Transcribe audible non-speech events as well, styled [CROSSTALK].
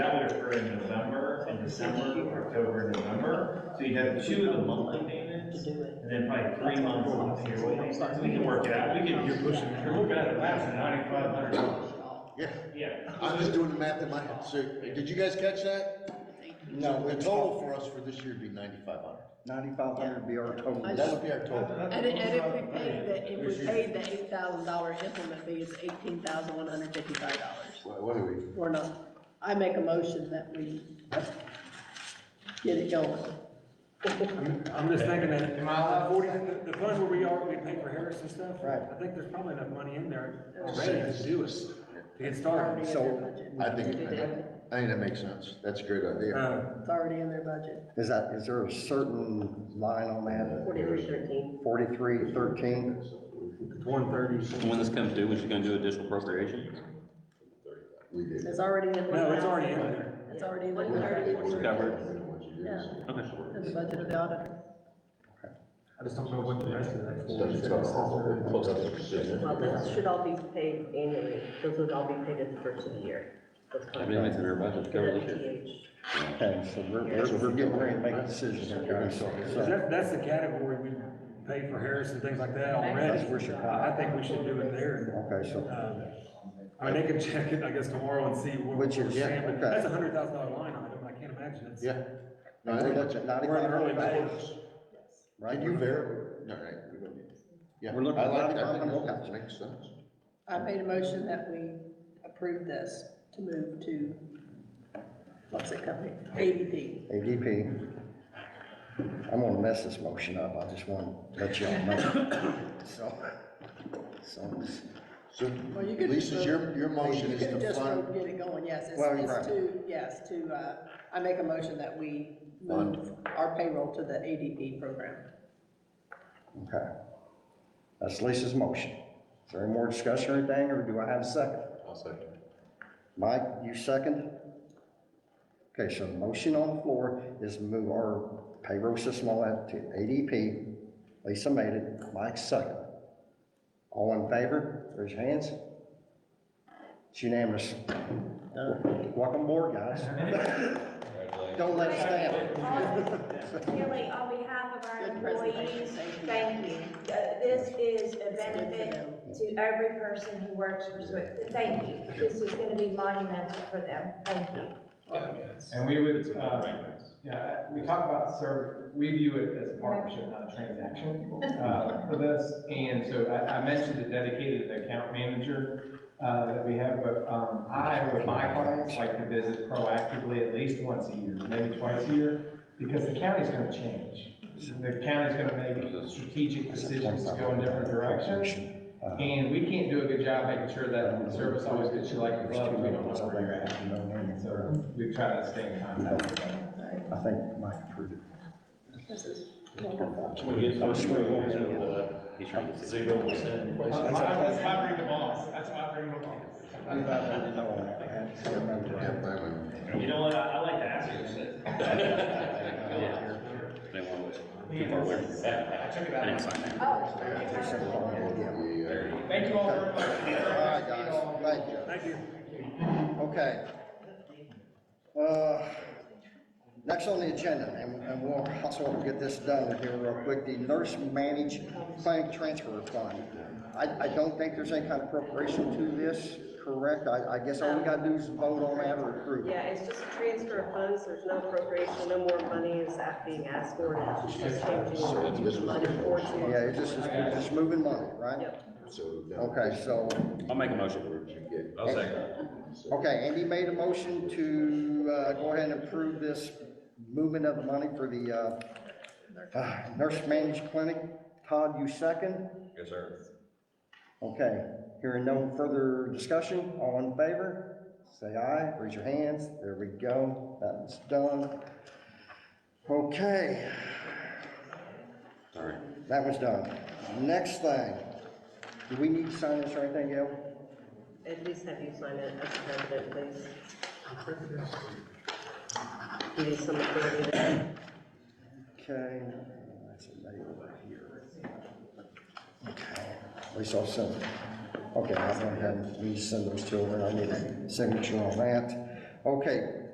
December, October, November, so you'd have two of the monthly payments, do it. and then probably three months of the yearly payments. We can work it out, we can, you're pushing, you're looking at a thousand ninety-five hundred dollars. Yeah, Yeah. I'm just doing the math in my head, so, did you guys catch that? No, The total for us for this year would be ninety-five hundred, ninety-five hundred would be our total. I that would be our total. And, it- and if we paid the, if we paid the eight thousand dollar implement fee, it's eighteen thousand one hundred fifty-five dollars. What, what are we, We're not, I make a motion that we get it going. I'm I'm just thinking that, Am I allowed? forty, the- the funds where we are, we pay for Harris and stuff. Right. I think there's probably enough money in there already to do it, to get Already started. in their budget. I think, It is. I think that makes sense, that's a great idea. Uh, It's already in their budget. Is that, is there a certain line on that, Forty-three thirteen. forty-three thirteen? it's one thirty. And When this comes due, what you gonna do, additional appropriation? We did. It's already in. their No, budget. it's already in there. It's already in We did. their budget. Yeah, Okay. in the budget of the auditor. I just don't know what the rest of that So it's for. got all the- close up to precision. Well, this should all be paid annually, those would all be paid at the first of the year. Those I believe it's in our budget, to cover this year. contracts. Okay, so we're, we're, we're getting ready to make a decision here, guys, so, so, That, that's the category we pay for Harris and things like that That's already. where she- I I think we should do it there. okay, so, Um, I mean, they can check it, I guess, tomorrow and see what we're Which is- yeah, saying, but okay. that's a hundred thousand dollar line item, I can't imagine it's. Yeah. No, I we're think that's, looking at We're in ninety-five early hundred May. dollars, right? can you verify? No, right. we don't need it. Yeah. We're looking I at like that, I $9,500. think that makes sense. I made a motion that we approve this to move to, what's it company? ADP. ADP. I'm gonna mess this motion up, I just wanna let y'all know. [COUGHS] So, so, So Well, you could Lisa's, just- your, your motion You is could to just vote, fund, get it going, yes, it's, Well, right. it's to, yes, to, uh, I make a motion that we move our payroll to the ADP program. okay. That's Lisa's motion. Is there any more discussion or anything, or do I have a second? I'll second. Mike, you second? Okay, so the motion on the floor is move our payroll system all that to ADP. Lisa made it, Mike second. All in favor, raise your hands. It's unanimous. Welcome aboard, guys. [LAUGHS] Don't let it stand. Really, on behalf of our Good employees, presentation, thank thank you. Uh, This is a benefit to every person who works for Swift. Thank you. This is gonna be monumental for them. Thank you. And we would, uh, yeah, we talk about serv, we view it as a partnership, not a transaction, uh, for this. And so I, I mentioned the dedicated account manager, uh, that we have, but, um, I, with my clients, like to visit proactively at least once a year, maybe twice a year, because the county's gonna change. The county's gonna make strategic decisions to go in different directions. And we can't do a good job making sure that the service always gets you like the glove, we don't know where you're at, you know, what I mean? so we try to stay in contact with them. I think Mike approved it. He's trying to see. [LAUGHS] That's why I bring the boss, that's why I bring the boss. Yeah, that one. You know what, I like to ask you this. They want to look too far away. I didn't sign that. Oh, We, uh, Thank you all very much. All right, guys, thank you. Thank you. Okay. Uh, Next on the agenda, and and we'll, also we'll get this done here real quick, the nurse managed clinic transfer fund. I, I don't think there's any kind of appropriation to this, correct? I, I guess all we gotta do is vote on that or approve. it. Yeah, it's just a transfer of funds, there's no appropriation, no more money is that being asked for, now. it's just changing the money for it. Yeah, it's just, it's just moving money, right? Yep. So now Okay, so, I'll make a motion. you get- I'll second. okay, Andy made a motion to, uh, go ahead and approve this movement of the money for the, uh, uh, nurse managed clinic. Todd, you second? Yes, sir. Okay, hearing no further discussion, all in favor, say aye, raise your hands, there we go, that's done. Okay, All right. that was done. Next thing, do we need to sign this or anything, Gail? At least have you sign it as president, please. Give you some authority there. Okay, that's a mail over here. Okay, At least I'll send, okay, I went ahead and we send those to her, I need a signature on that. Okay,